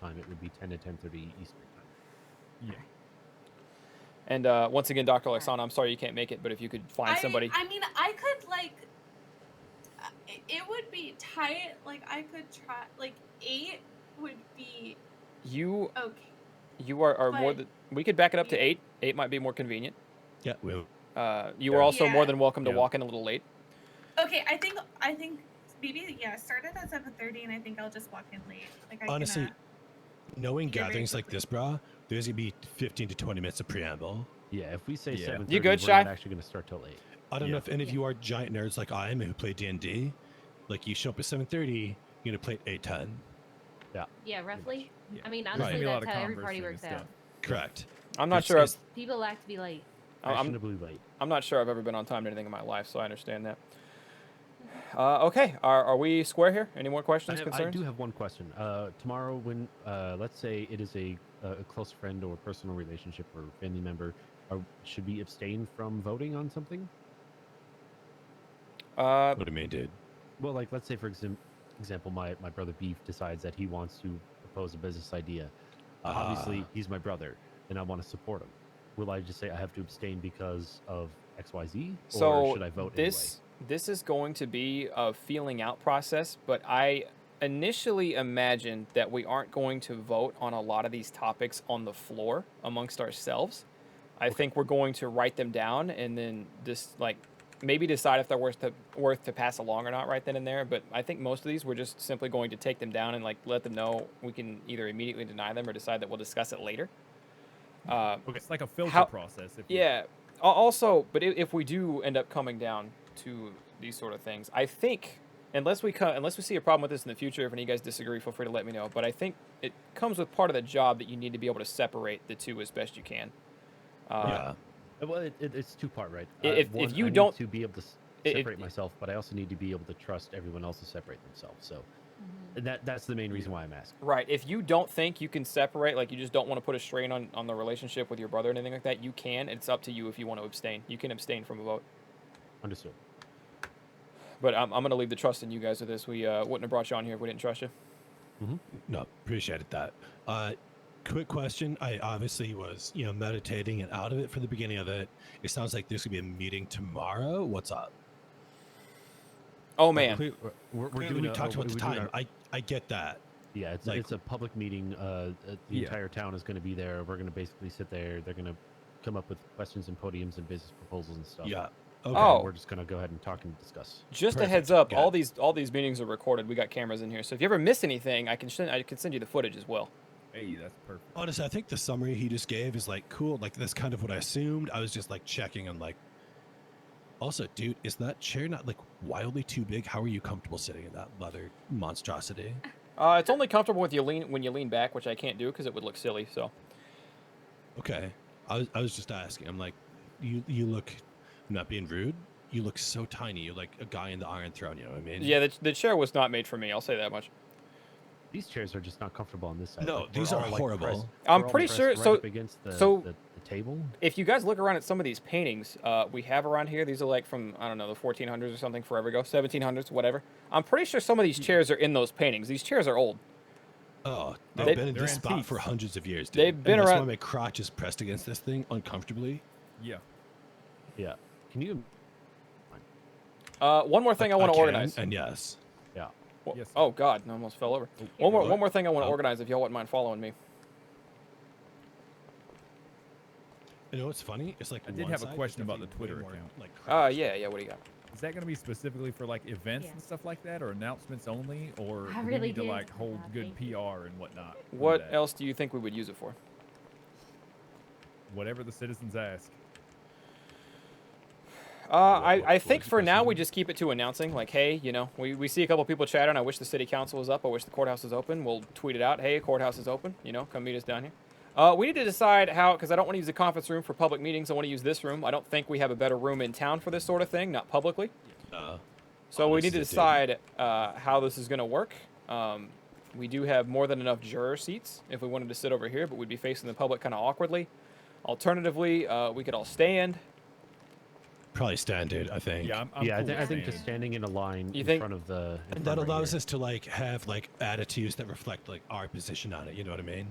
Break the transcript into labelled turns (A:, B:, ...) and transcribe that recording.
A: time, it would be 10 to 10.30 Eastern time.
B: Yeah.
C: And uh, once again, Dr. Alexana, I'm sorry you can't make it, but if you could find
D: I
C: somebody.
D: Mean, I mean, I could like. uh, it- It would be tight. Like I could try. Like eight would be
C: you
D: okay.
C: you are, are more
D: But-
C: than. We could back it up to
D: Yeah.
C: eight. Eight might be more convenient.
B: Yeah.
A: Well,
C: Uh, you are
B: Yeah.
C: also more
D: Yeah.
C: than welcome to
B: Yeah.
C: walk in a little late.
D: Okay, I think I think maybe yeah. Start it at seven thirty, and I think I'll just walk in late. Like I can,
B: Honestly,
D: uh,
B: Knowing
D: Yeah, very
B: gatherings like
D: quickly.
B: this, brah, there's gonna be 15 to 20 minutes of preamble.
A: yeah, if we say
B: Yeah.
A: 7.30,
C: You good,
A: we're
C: Shy?
A: not actually going to start till 8.
B: I don't know
A: Yeah.
B: if any of
D: Yeah.
B: you are giant nerds like I am who play D&D. Like you show up at 7:30, you're gonna play at 8:10.
E: Yeah, roughly.
F: Yeah.
E: I mean,
B: There's gonna
E: honestly,
B: be
F: a lot
E: that's
F: of
E: how every party
F: conversing and
E: works out.
F: stuff.
B: Correct.
C: I'm not
B: It's-
C: sure. I've,
B: it's-
E: People like to be late.
C: I- Oh, I'm,
A: Fashionably late.
C: I'm not sure I've ever been on time to anything in my life, so I understand that. Uh, okay, are, are we square here? Any more
A: I,
C: questions,
A: have- I
C: concerns?
A: do have one question. Uh, tomorrow, when uh, let's say it is a, a a close friend or personal relationship or family member, are, should we abstain from voting on something?
C: uh,
B: what do you mean, dude?
A: Well, like let's say for exam- example, my my brother Beef decides that he wants to propose a business idea. Uh, Obviously,
B: Ah.
A: he's my brother, and I want to support him. Will I just say I have to abstain because of X Y Z, or
C: so
A: should I vote
C: this this is going to be a feeling out process, but I initially imagined that we aren't going to vote on a lot of these topics on the floor amongst ourselves. I think we're going to write them down and then just like maybe decide if they're worth to worth to pass along or not right then and there. But I think most of these we're just simply going to take them down and like let them know we can either immediately deny them or decide that we'll discuss it later. Uh,
F: It's like a filter
C: How-
F: process. If you-
C: yeah. Al- Also, but i- if we do end up coming down to these sort of things, I think unless we co- unless we see a problem with this in the future, if any of you guys disagree, feel free to let me know. But I think it comes with part of the job that you need to be able to separate the two as best you can. Uh,
B: yeah.
A: away? Uh, Well, it, it, it's two part, right?
C: I- if- if
A: one,
C: you
A: I need
C: don't-
A: to be able to s-
C: i- if-
A: separate myself, but I also need to be able to trust everyone else to separate themselves. So and that that's the main reason why I'm asking.
C: Right. If you don't think you can separate, like you just don't want to put a strain on, on the relationship with your brother or anything like that, you can. It's up to you if you want to abstain. You can abstain from a vote.
A: Understood.
C: But I'm, I'm going to leave the trust in you guys with this. We uh, wouldn't have brought you on here if we didn't trust you.
B: No, appreciated that. Uh, quick question. I obviously was, you know, meditating and out of it for the beginning of it. It sounds like there's gonna be a meeting tomorrow. What's up?
C: Oh, man.
A: Cle- we're- we're, we're
B: Clearly
A: doing
B: we
A: a-
B: talked
A: we're
B: about the
A: doing
B: time.
A: our-
B: I I get that.
A: Yeah, it's,
B: Like-
A: it's a public meeting. Uh, uh, the
B: Yeah.
A: entire town is going to be there. We're going to basically sit there. They're going to come up with questions and podiums and business proposals and stuff.
B: Yeah. Okay.
A: And
C: Oh.
A: we're just going to go ahead and talk and discuss.
C: Just a
B: Perfect.
C: heads up,
B: Got
C: all
B: it.
C: these all these meetings are recorded. We got cameras in here, so if you ever miss anything, I can send I can send you the footage as well.
F: Hey, that's perfect.
B: Honestly, I think the summary he just gave is like cool. Like that's kind of what I assumed. I was just like checking on like. Also, dude, is that chair not like wildly too big? How are you comfortable sitting in that leather monstrosity?
C: Uh, it's only comfortable with you lean when you lean back, which I can't do because it would look silly. So
B: Okay, I was I was just asking. I'm like, you you look, I'm not being rude. You look so tiny. You're like a guy in the Iron Throne. You know what I mean?
C: yeah, the, the chair was not made for me. I'll say that much.
A: These chairs are just not comfortable on this side.
B: No,
A: Like, we're
B: these are
A: all, like,
B: horrible.
A: pressed-
C: I'm
A: we're all
C: pretty
A: pressed
C: sure-
A: right
C: so-
A: up against the,
C: so-
A: the, the table.
C: If you guys look around at some of these paintings uh, we have around here, these are like from I don't know the 1400s or something, forever ago, 1700s, whatever. I'm pretty sure some of these chairs are in those paintings. These chairs are old.
B: Oh, they've
C: They-
B: been in
F: They're
B: this spot for
F: antiques.
B: hundreds of years. Dude.
C: They've been
B: and that's
C: around-
B: Why my crotch is pressed against this thing uncomfortably.
F: Yeah.
A: Yeah. Can you?
C: Uh, one more thing
B: Like,
C: I want to
B: can,
C: organize.
B: And yes,
A: Yeah.
C: Wha-
F: Yes, sir.
C: oh God, I almost fell over. One more
B: What?
C: one more thing I want to
B: Oh.
C: organize. If y'all wouldn't mind following me.
B: you know what's funny? It's like
F: I did
B: one
F: have a
B: side is
F: question about
B: definitely
F: the Twitter
B: way more,
F: account. Ah,
B: Like,
C: Uh,
B: crotch.
C: yeah, yeah. What do you got?
F: Is that going to be specifically for like events
E: Yeah.
F: and stuff like that, or announcements only, or
E: I
F: do we
E: really
F: need to
E: did
F: like
E: think
F: hold
E: about
F: good
E: it.
F: PR and whatnot? for
C: What
F: that?
C: else do you think we would use it for?
F: Whatever the citizens ask.
C: Uh, I,
A: what-
C: I
A: what
C: think
A: was the
C: for now we
A: question?
C: just keep it to announcing, like, hey, you know, we, we see a couple people chatting. I wish the city council was up. I wish the courthouse was open. We'll tweet it out. Hey, courthouse is open. You know, come meet us down here. Uh, we need to decide how, because I don't want to use the conference room for public meetings. I want to use this room. I don't think we have a better room in town for this sort of thing, not publicly.
B: Uh,
C: So
B: Oh,
C: we
B: this
C: need to
B: is a
C: decide uh, how this is going to work. Um, we do have more than enough juror seats if we wanted to sit over here, but we'd be facing the public kind of awkwardly. Alternatively, uh, we could all stand.
B: probably standard, I think.
F: Yeah, I'm, I'm
A: yeah, I,
F: cool
A: thi-
F: with
A: I think just standing
F: standing.
A: in a line
C: You
A: in
C: think-
A: front of the. in
B: And
A: front
B: that
A: right
B: allows
A: here.
B: us to like have like attitudes that reflect like our position on it. You know what I mean?